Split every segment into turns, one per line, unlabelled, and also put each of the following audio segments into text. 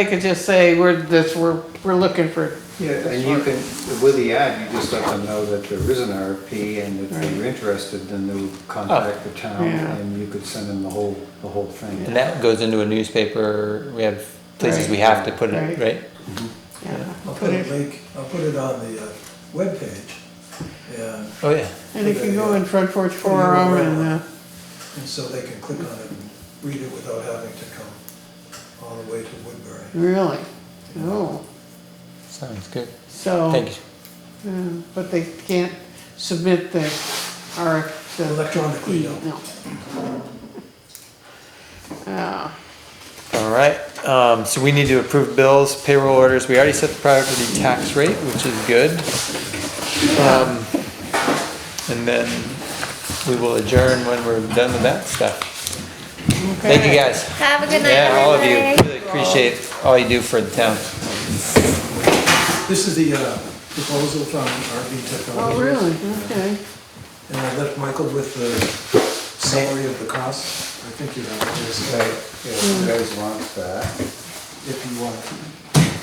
They could just say, we're, this, we're, we're looking for,
Yeah, and you can, with the ad, you just let them know that there is an RFP, and if they're interested, then they'll contact the town,
Yeah.
and you could send them the whole, the whole thing.
And that goes into a newspaper, we have places we have to put
Right.
it, right?
yeah.
I'll put a link, I'll put it on the uh, webpage, and,
Oh, yeah.
And if you go in Front Porch Forum and, uh,
and so they can click on it and read it without having to come all the way to Woodbury.
really, oh,
Sounds good.
Oh.
so.
Thank you.
uh, But they can't submit the RF, the. E.
Electronically, no.
Uh,
All right, um, so we need to approve bills, payroll orders. We already set the property tax rate, which is good. Um, and then we will adjourn when we're done with that stuff. Thank you,
okay.
guys.
Have a good night,
Yeah, all of you.
everybody.
Really appreciate all you do for the town.
This is the uh, proposal from RV Technologies.
Oh, really, okay.
And I left Michael with the summary of the cost. I think you have it,
Okay,
just, uh,
yeah, if you guys want that,
if you want.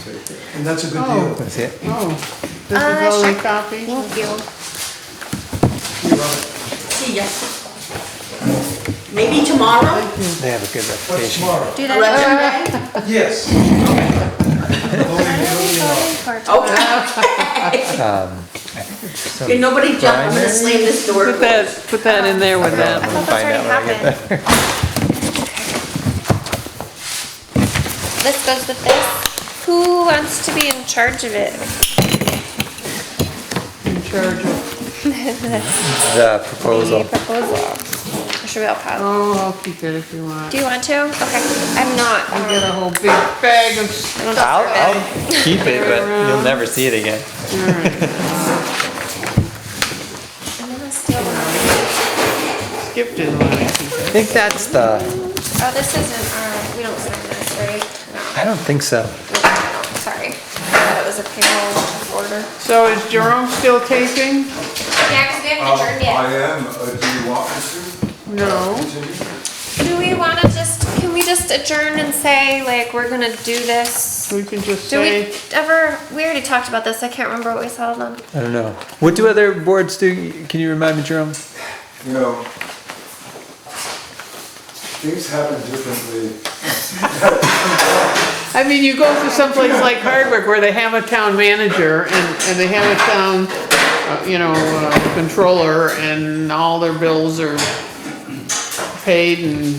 take it.
And that's a good
Oh.
deal.
That's it.
Oh, this
Uh,
is only
sh-
copy?
Thank you.
You love it.
See ya. Maybe tomorrow?
They have a good
What's
reputation.
tomorrow?
Do that. Uh,
Election day?
Yes.
uh,
Okay.
Um, I think there's some-
Can nobody jump, I'm gonna slam this door.
Put that, put that in there with
I'm
that.
gonna
That's
find out
already
when I get
happened.
there.
This goes with this. Who wants to be in charge of it?
In charge of,
The
The
proposal.
proposal. Or should we all pass?
oh, I'll keep it if you want.
Do you want to? Okay, I'm not. um,
I get a whole big bag of stuff.
I'll, I'll keep it, but you'll never see it again.
All right,
I'm gonna steal one.
Skip didn't want to keep
I
it.
think that's the,
Oh, this isn't, uh, we don't sign this, right? No,
I don't think so.
no, no, sorry. I thought it was a payroll order.
So is Jerome still taping?
Yeah, cause we haven't adjourned
Um, I
yet.
am, uh, do you want me
No.
to continue?
Do we wanna just, can we just adjourn and say, like, we're gonna do this?
We can just
Do we
say,
ever, we already talked about this, I can't remember what we settled on.
I don't know. What do other boards do? Can you remind me, Jerome?
You know, things happen differently.
I mean, you go to someplace like Hardwick where they have a town manager and, and they have a town, uh, you know, uh, controller and all their bills are paid and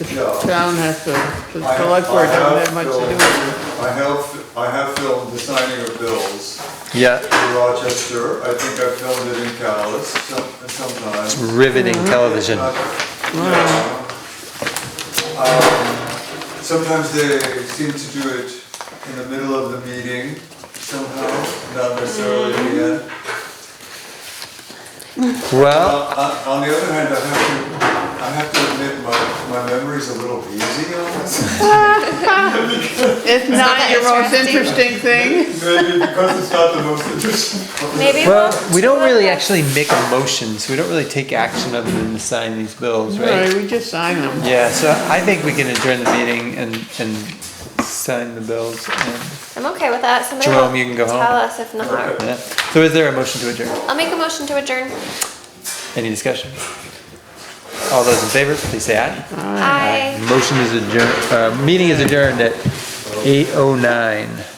the
Yeah.
town has to, the
I-
select board
I
doesn't
have
have much to do
filmed-
with it.
I have, I have filmed the signing of bills
Yeah,
in Rochester. I think I filmed it in Calais some, sometimes.
riveting television.
Uh, yeah. Um, Sometimes they seem to do it in the middle of the meeting somehow, not necessarily at the end.
Well,
Uh, uh, On the other hand, I have to, I have to admit, my, my memory's a little easy on this.
It's not
that
your most
interesting.
interesting thing.
Maybe because it's not the most interesting.
Maybe we'll.
well, we don't really actually make motions. We don't really take action other than to sign these bills,
Right,
right?
we just sign them.
Yeah, so I think we can adjourn the meeting and, and sign the bills. and-
I'm okay with that. Somebody
Jerome,
will
you can go
tell
home.
us if not.
yeah. So is there a motion to adjourn?
I'll make a motion to adjourn.
Any discussion? All those in favor, please say aye.
Aye.
Motion is adjourned, uh, meeting is adjourned at eight oh nine.